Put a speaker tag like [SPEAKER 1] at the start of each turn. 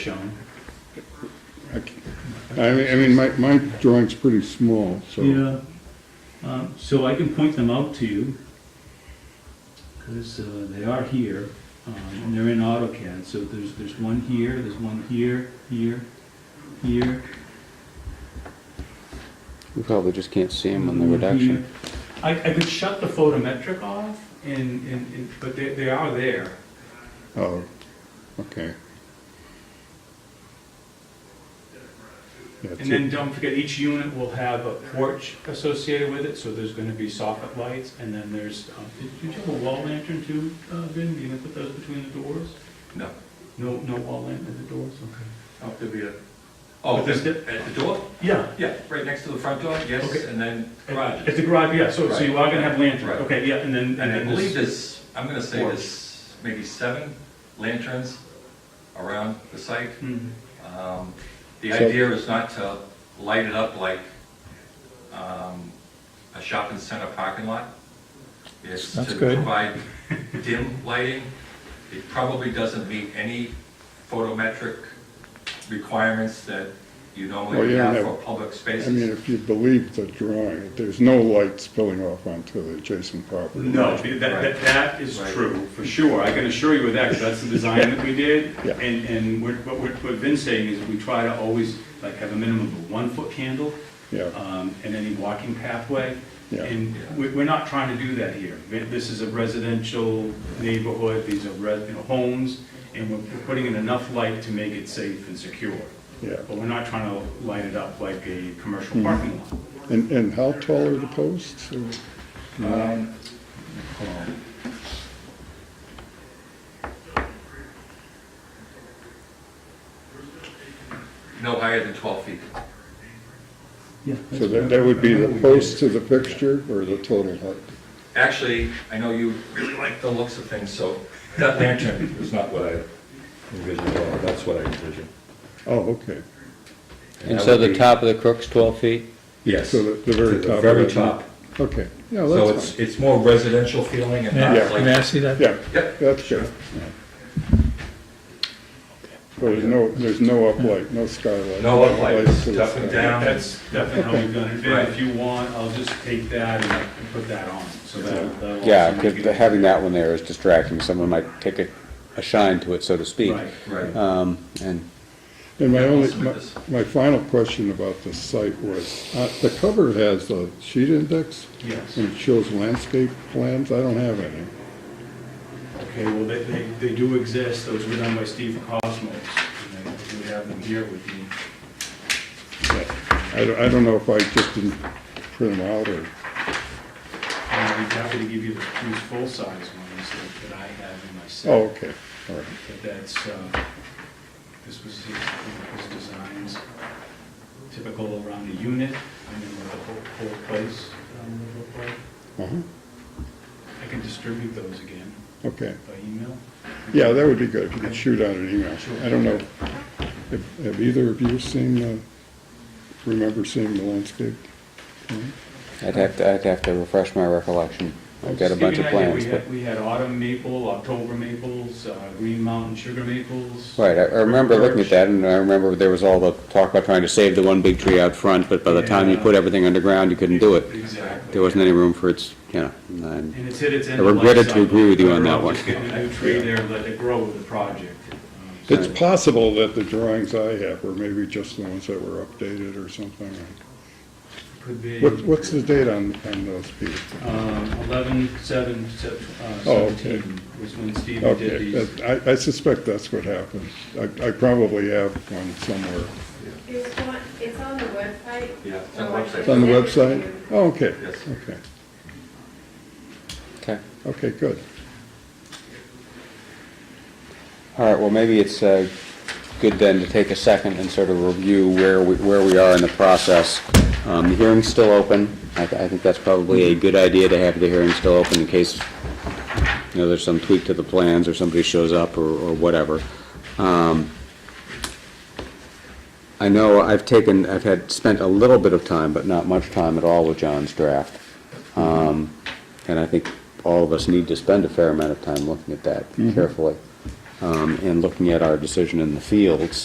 [SPEAKER 1] shown.
[SPEAKER 2] I mean, I mean, my, my drawing's pretty small, so.
[SPEAKER 1] Yeah, Um, so I can point them out to you, because they are here, um, and they're in AutoCAD, so there's, there's one here, there's one here, here, here.
[SPEAKER 3] We probably just can't see them on the
[SPEAKER 1] one
[SPEAKER 3] reduction.
[SPEAKER 1] here. I, I could shut the photometric off, and, and, and- but they, they are there.
[SPEAKER 2] Oh, okay. Yeah,
[SPEAKER 1] And then don't forget, each unit will have a porch associated with it, so there's gonna be soffit lights, and then there's, um, did did you have a wall lantern too, uh, Vin? You gonna put those between the doors?
[SPEAKER 4] No,
[SPEAKER 1] No, no wall lantern at the doors, okay.
[SPEAKER 4] oh, there'll be a, oh,
[SPEAKER 1] But there's
[SPEAKER 4] just at the door?
[SPEAKER 1] Yeah,
[SPEAKER 4] Yeah, right next to the front door, yes,
[SPEAKER 1] Okay.
[SPEAKER 4] and then garage.
[SPEAKER 1] at the garage, yeah, so, so you are gonna have
[SPEAKER 4] Right.
[SPEAKER 1] lanterns, okay, yeah, and then, and
[SPEAKER 4] And I
[SPEAKER 1] then
[SPEAKER 4] believe
[SPEAKER 1] this,
[SPEAKER 4] there's, I'm gonna say
[SPEAKER 1] Porch.
[SPEAKER 4] there's maybe seven lanterns around the site.
[SPEAKER 1] Hmm.
[SPEAKER 4] Um, The
[SPEAKER 2] So-
[SPEAKER 4] idea is not to light it up like um, a shopping center parking lot. It's to
[SPEAKER 5] That's good.
[SPEAKER 4] provide dim lighting. It probably doesn't meet any photometric requirements that you
[SPEAKER 2] Well,
[SPEAKER 4] normally
[SPEAKER 2] you don't
[SPEAKER 4] have for
[SPEAKER 2] have-
[SPEAKER 4] public
[SPEAKER 2] I mean,
[SPEAKER 4] spaces.
[SPEAKER 2] if you believe the drawing, there's no light spilling off onto the adjacent property.
[SPEAKER 1] no, that, that, that is
[SPEAKER 4] Right.
[SPEAKER 1] true, for sure, I can assure you of that, 'cause that's the design that we did.
[SPEAKER 2] Yeah.
[SPEAKER 1] And, and what, what, we're- what Vin's saying is we try to always, like, have a minimum of one foot candle,
[SPEAKER 2] Yeah,
[SPEAKER 1] um, and any walking pathway.
[SPEAKER 2] Yeah.
[SPEAKER 1] And we- we're not trying to do that here. This is a residential neighborhood, these are res- you know, homes, and we're we're putting in enough light to make it safe and secure.
[SPEAKER 2] yeah.
[SPEAKER 1] But we're not trying to light it up like a commercial parking lot.
[SPEAKER 2] And, and how tall are the posts? Or-
[SPEAKER 4] Um, hold on. No higher than 12 feet.
[SPEAKER 2] So that, that would be the post to the fixture or the total height?
[SPEAKER 4] Actually, I know you really like the looks of things, so that lantern is not what I envisioned at all. That's what I envisioned.
[SPEAKER 2] Oh, okay.
[SPEAKER 3] And
[SPEAKER 4] that
[SPEAKER 3] so
[SPEAKER 4] would
[SPEAKER 3] the
[SPEAKER 4] be-
[SPEAKER 3] top of the crook's 12 feet?
[SPEAKER 4] Yes,
[SPEAKER 2] So the, the
[SPEAKER 4] to
[SPEAKER 2] very
[SPEAKER 4] the
[SPEAKER 2] top.
[SPEAKER 4] very
[SPEAKER 2] right?
[SPEAKER 4] top.
[SPEAKER 2] Okay, yeah,
[SPEAKER 4] So
[SPEAKER 2] that's
[SPEAKER 4] it's,
[SPEAKER 2] fine.
[SPEAKER 4] it's more residential feeling and
[SPEAKER 5] May I-
[SPEAKER 4] not
[SPEAKER 5] may I
[SPEAKER 4] like,
[SPEAKER 5] see that?
[SPEAKER 2] Yeah,
[SPEAKER 4] yep,
[SPEAKER 2] that's good. So there's no, there's no uplight, no skylight?
[SPEAKER 4] no uplights,
[SPEAKER 2] to the
[SPEAKER 4] up and
[SPEAKER 2] sky.
[SPEAKER 4] down.
[SPEAKER 1] That's definitely how we've done it. Vin,
[SPEAKER 4] Right.
[SPEAKER 1] If you want, I'll just take that and and put that on, so that'll. that'll
[SPEAKER 3] Yeah,
[SPEAKER 1] also make
[SPEAKER 3] 'cause
[SPEAKER 1] it-
[SPEAKER 3] having that one there is distracting. Someone might take a, a shine to it, so to speak.
[SPEAKER 1] Right.
[SPEAKER 4] Right.
[SPEAKER 3] Um, and
[SPEAKER 2] And my
[SPEAKER 4] Yeah,
[SPEAKER 2] only,
[SPEAKER 4] let's do
[SPEAKER 2] my,
[SPEAKER 4] this.
[SPEAKER 2] my final question about the site was, uh, the cover has a sheet index
[SPEAKER 1] Yes.
[SPEAKER 2] and it shows landscape plans. I don't have any.
[SPEAKER 1] Okay, well, they, they, they do exist, those were done by Steve Cosmos, and I do have them here with me.
[SPEAKER 2] I don't, I don't know if I just didn't print them out or,
[SPEAKER 1] And I'd be happy to give you the- these full-size ones that- that I have in my set.
[SPEAKER 2] oh, okay, all right.
[SPEAKER 1] But that's, uh, this was his, his designs, typical around a unit, and then what the whole, whole place um, would look like.
[SPEAKER 2] Uh-huh,
[SPEAKER 1] I can distribute those again
[SPEAKER 2] okay.
[SPEAKER 1] by email.
[SPEAKER 2] Yeah, that would be good, if you could shoot out an email.
[SPEAKER 1] Sure.
[SPEAKER 2] I don't know, have, have either of you seen, uh, remember seeing the landscape? plan?
[SPEAKER 3] I'd have to, I'd have to refresh my recollection. I've got a
[SPEAKER 1] Just to
[SPEAKER 3] bunch
[SPEAKER 1] give you
[SPEAKER 3] of
[SPEAKER 1] an idea,
[SPEAKER 3] plans,
[SPEAKER 1] We
[SPEAKER 3] but,
[SPEAKER 1] had, we had autumn maple, October maples, uh, green mountain sugar maples.
[SPEAKER 3] right, I I remember looking at that, and I remember there was all the talk about trying to save the one big tree out front, but by the time you
[SPEAKER 1] Yeah.
[SPEAKER 3] put everything underground, you couldn't do it.
[SPEAKER 1] Exactly.
[SPEAKER 3] There wasn't any room for its, you know, and-
[SPEAKER 1] And it's hit its end.
[SPEAKER 3] I
[SPEAKER 1] of
[SPEAKER 3] regretted
[SPEAKER 1] life
[SPEAKER 3] to agree with you
[SPEAKER 1] cycle.
[SPEAKER 3] on that
[SPEAKER 1] We're
[SPEAKER 3] one.
[SPEAKER 1] Just getting a new tree there, let it grow with the project. Um, so-
[SPEAKER 2] It's possible that the drawings I have were maybe just the ones that were updated or something.
[SPEAKER 1] Could be
[SPEAKER 2] What, what's the date on, on those people?
[SPEAKER 1] um, 11, 7, sep- uh,
[SPEAKER 2] Oh, okay.
[SPEAKER 1] 17 was when Steve did
[SPEAKER 2] Okay,
[SPEAKER 1] these.
[SPEAKER 2] that- I, I suspect that's what happened. I, I probably have one somewhere.
[SPEAKER 6] It's on, it's on the website. Um,
[SPEAKER 4] Yeah, it's on the website.
[SPEAKER 2] It's on the website? Oh, okay,
[SPEAKER 4] Yes.
[SPEAKER 2] okay,
[SPEAKER 3] Okay.
[SPEAKER 2] okay, good.
[SPEAKER 3] All right, well, maybe it's uh, good then to take a second and sort of review where we, where we are in the process. Um, The hearing's still open. I, I think that's probably a good idea to have the hearing still open in case, you know, there's some tweak to the plans or somebody shows up or, or whatever. Um, I know I've taken, I've had, spent a little bit of time, but not much time at all with John's draft. Um, And I think all of us need to spend a fair amount of time looking at that carefully um, and looking at our decision in the fields.